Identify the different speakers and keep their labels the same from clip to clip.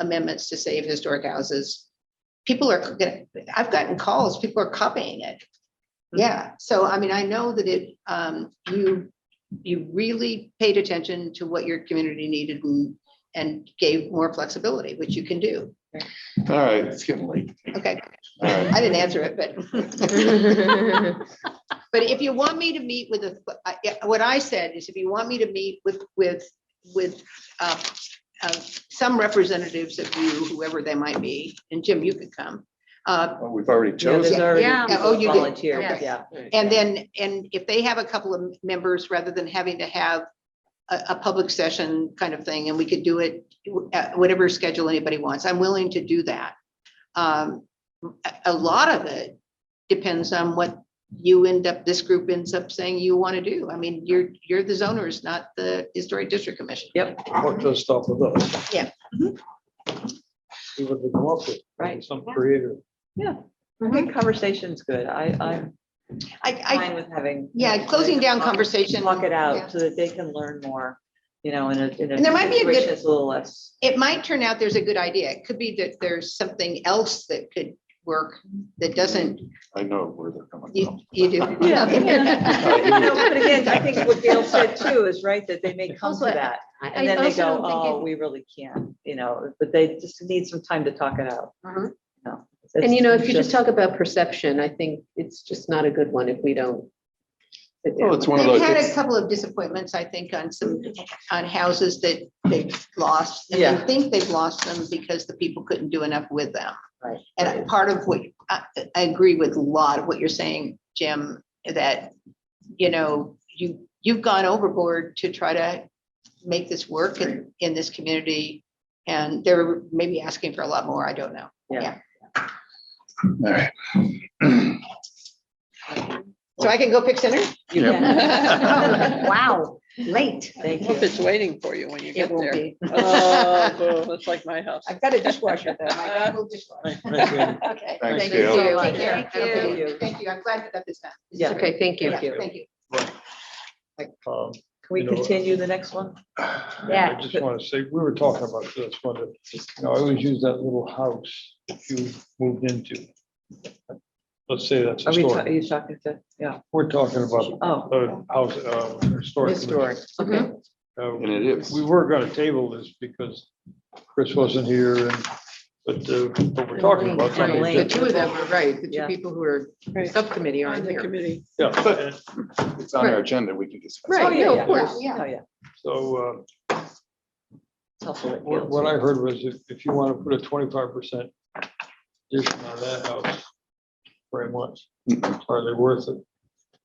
Speaker 1: amendments to save historic houses. People are, gonna- I've gotten calls, people are copying it. Yeah, so I mean, I know that it, um, you, you really paid attention to what your community needed and, and gave more flexibility, which you can do.
Speaker 2: All right, it's getting late.
Speaker 1: Okay,
Speaker 2: All right.
Speaker 1: I didn't answer it, but. But if you want me to meet with, a, I- yeah, what I said is if you want me to meet with, with, with uh, uh, some representatives of you, whoever they might be, and Jim, you could come. uh,
Speaker 2: Well, We've already
Speaker 3: Yeah, there's
Speaker 2: chosen.
Speaker 3: already
Speaker 4: Yeah.
Speaker 1: Yeah, oh,
Speaker 3: people
Speaker 1: you did.
Speaker 3: volunteered,
Speaker 1: Okay.
Speaker 3: yeah.
Speaker 1: And then, and if they have a couple of members, rather than having to have a, a public session kind of thing, and we could do it at whatever schedule anybody wants, I'm willing to do that. Um, a, a lot of it depends on what you end up, this group ends up saying you want to do. I mean, you're, you're the zoners, not the historic district commission.
Speaker 5: What
Speaker 3: Mhm.
Speaker 5: does stop with Mhm. us?
Speaker 1: Yeah.
Speaker 5: See what we come up with.
Speaker 3: Right.
Speaker 5: Some creative.
Speaker 3: I think conversation's good. I, I'm fine
Speaker 1: I, I,
Speaker 3: with having.
Speaker 1: yeah, closing down
Speaker 3: Talk-
Speaker 1: conversation.
Speaker 3: Talk it
Speaker 1: Yeah.
Speaker 3: out so that they can learn more, you know, in a, in a.
Speaker 1: And there might be a good-
Speaker 3: situation that's A little less.
Speaker 1: it might turn out there's a good idea. It could be that there's something else that could work that doesn't
Speaker 2: I know where they're coming
Speaker 1: You,
Speaker 2: from.
Speaker 1: you do.
Speaker 3: Yeah.
Speaker 2: Alright,
Speaker 3: You know, But again, I think what Gail said too is right, that they may come to
Speaker 4: Also,
Speaker 3: that.
Speaker 4: I
Speaker 3: And then they
Speaker 4: also
Speaker 3: go,
Speaker 4: don't
Speaker 3: oh,
Speaker 4: think
Speaker 3: we really can't, you know, but they just need some time to talk it out.
Speaker 1: Mhm.
Speaker 3: you know.
Speaker 4: it- And you know, if you
Speaker 3: It's
Speaker 4: just talk about perception, I think it's just not a good one if we don't. sit down
Speaker 2: Well, Oh, it's
Speaker 4: with-
Speaker 2: one of
Speaker 1: They've
Speaker 2: those,
Speaker 1: had a
Speaker 2: it's-
Speaker 1: couple of disappointments, I think, on some, on houses that they've lost. And I
Speaker 3: Yeah.
Speaker 1: think they've lost them because the people couldn't do enough with them.
Speaker 3: Right.
Speaker 1: And part of what, I, I agree with a lot of what you're saying, Jim, that, you know, you, you've gone overboard to try to make this work in, in this community. And they're maybe asking for a lot more, I don't know.
Speaker 2: all right.
Speaker 1: So I can go pick center?
Speaker 3: You
Speaker 2: Yeah.
Speaker 3: can.
Speaker 4: Wow, late.
Speaker 3: Thank
Speaker 6: Hope
Speaker 3: you.
Speaker 6: it's waiting for you when you
Speaker 1: It
Speaker 6: get
Speaker 1: won't
Speaker 6: there.
Speaker 1: be.
Speaker 6: Oh, That's like my house.
Speaker 1: I've got a dishwasher though. I got a little dishwasher.
Speaker 5: Um,
Speaker 1: Okay.
Speaker 2: Thanks,
Speaker 1: Thank
Speaker 2: Gail.
Speaker 1: you.
Speaker 3: Thank
Speaker 1: Take care.
Speaker 4: you.
Speaker 1: Okay.
Speaker 3: Thank you.
Speaker 1: Thank you. I'm glad that that is done. This is
Speaker 3: Yeah.
Speaker 1: great.
Speaker 4: Okay, thank you.
Speaker 1: Yeah, Thank you.
Speaker 5: Um,
Speaker 3: Can we
Speaker 5: You know-
Speaker 3: continue the next one?
Speaker 5: I just want to say, we were talking about this one, that, you know, I always use that little house that you moved into. Let's say that's
Speaker 3: Are we, ta-
Speaker 5: historic.
Speaker 3: are you talking to, yeah,
Speaker 5: We're talking about
Speaker 3: oh,
Speaker 5: a house, uh, historic.
Speaker 3: historic, okay.
Speaker 4: Mhm.
Speaker 5: Uh,
Speaker 2: And it is.
Speaker 5: We were gonna table this because Chris wasn't here and, but, uh, but we're talking about something.
Speaker 3: Lane.
Speaker 4: The
Speaker 5: that-
Speaker 4: two of them are right, the two
Speaker 3: Yeah.
Speaker 4: people who are
Speaker 6: Right.
Speaker 4: subcommittee
Speaker 6: On
Speaker 4: aren't
Speaker 6: the
Speaker 4: here.
Speaker 6: committee.
Speaker 5: Yeah, and-
Speaker 2: It's on our agenda, we can discuss. it.
Speaker 4: Right.
Speaker 3: Oh,
Speaker 4: no, of
Speaker 3: yeah,
Speaker 4: course.
Speaker 3: yeah, oh, yeah.
Speaker 5: So
Speaker 3: It's also
Speaker 5: uh,
Speaker 3: what
Speaker 5: what
Speaker 3: Gail
Speaker 5: what I
Speaker 3: said.
Speaker 5: heard was if, if you want to put a twenty-five percent addition on that house, very much, are they worth it?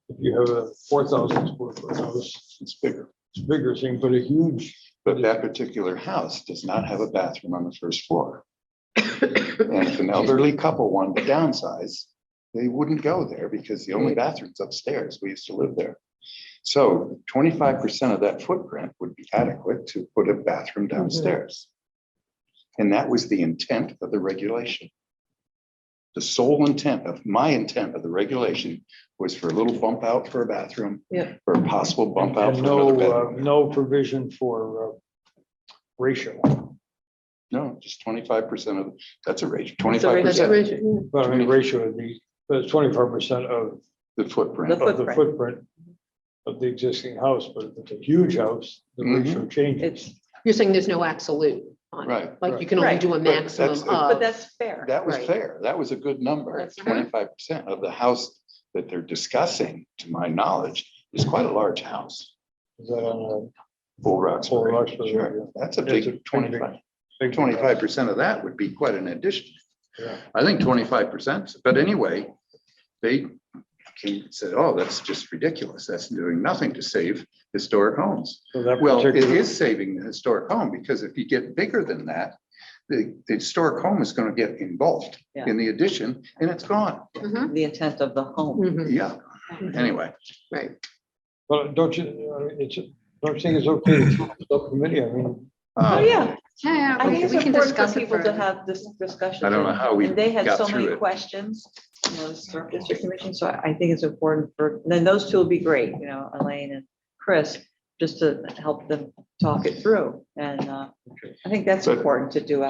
Speaker 5: If you have a four thousand square foot house,
Speaker 2: It's bigger,
Speaker 5: it's bigger thing, but a huge,
Speaker 2: but that particular house does not have a bathroom on the first floor. And if an elderly couple wanted to downsize, they wouldn't go there because the only bathroom's upstairs. We used to live there. So twenty-five percent of that footprint would be adequate to put a bathroom downstairs. And that was the intent of the regulation. The sole intent of, my intent of the regulation was for a little bump out for a bathroom.
Speaker 3: Yeah.
Speaker 2: For a possible bump out for
Speaker 5: and
Speaker 2: another
Speaker 5: no,
Speaker 2: bedroom.
Speaker 5: uh, no provision for uh, ratio.
Speaker 2: No, just twenty-five percent of, that's a ratio,
Speaker 3: It's a
Speaker 2: twenty-five
Speaker 4: That's
Speaker 2: percent
Speaker 4: right. Yeah.
Speaker 5: But I mean, ratio would be, but it's twenty-five percent of,
Speaker 2: the footprint.
Speaker 3: The
Speaker 5: of the
Speaker 3: footprint.
Speaker 5: footprint of the existing house, but if it's a huge house, the
Speaker 2: Mhm.
Speaker 5: ratio changes.
Speaker 3: It's,
Speaker 4: You're saying there's no absolute on it,
Speaker 2: Right.
Speaker 4: like you can only
Speaker 3: Right.
Speaker 4: do a
Speaker 2: that's-
Speaker 4: maximum
Speaker 3: but
Speaker 4: of.
Speaker 3: that's fair.
Speaker 2: That was
Speaker 4: Right.
Speaker 2: fair. That was a good number.
Speaker 4: That's fair.
Speaker 2: Twenty-five percent of the house that they're discussing, to my knowledge, is quite a large house.
Speaker 5: Is that on
Speaker 2: Full Rocks.
Speaker 5: Full Roxbury, yeah.
Speaker 2: Sure, that's a
Speaker 5: That's a
Speaker 2: big
Speaker 5: big,
Speaker 2: twenty-five.
Speaker 5: a big-
Speaker 2: Twenty-five percent of that would be quite an addition.
Speaker 5: Yeah.
Speaker 2: I think twenty-five percent, but anyway, they came and said, oh, that's just ridiculous. That's doing nothing to save historic homes.
Speaker 5: So that
Speaker 2: Well, it
Speaker 5: particular-
Speaker 2: is saving the historic home, because if you get bigger than that, the, the historic home is gonna get engulfed
Speaker 3: Yeah.
Speaker 2: in the addition, and it's gone.
Speaker 4: Mhm.
Speaker 3: The intent of the home.
Speaker 4: Mhm.
Speaker 2: Yeah, anyway,
Speaker 4: Right.
Speaker 5: Well, don't you, uh, it's, don't you think it's okay to keep the subcommittee? I mean,
Speaker 2: Um,
Speaker 3: Oh, yeah.
Speaker 4: Yeah, yeah,
Speaker 3: I think
Speaker 4: we-
Speaker 3: it's
Speaker 4: we can
Speaker 3: important
Speaker 4: discuss
Speaker 3: for
Speaker 4: it
Speaker 3: people to
Speaker 4: further.
Speaker 3: have this discussion.
Speaker 2: I don't know how we
Speaker 3: And they had
Speaker 2: got
Speaker 3: so
Speaker 2: through
Speaker 3: many
Speaker 2: it.
Speaker 3: questions, you know, the Historic District Commission, so I I think it's important for, then those two will be great, you know, Elaine and Chris, just to help them talk it through. And uh, I think that's
Speaker 2: But-
Speaker 3: important to do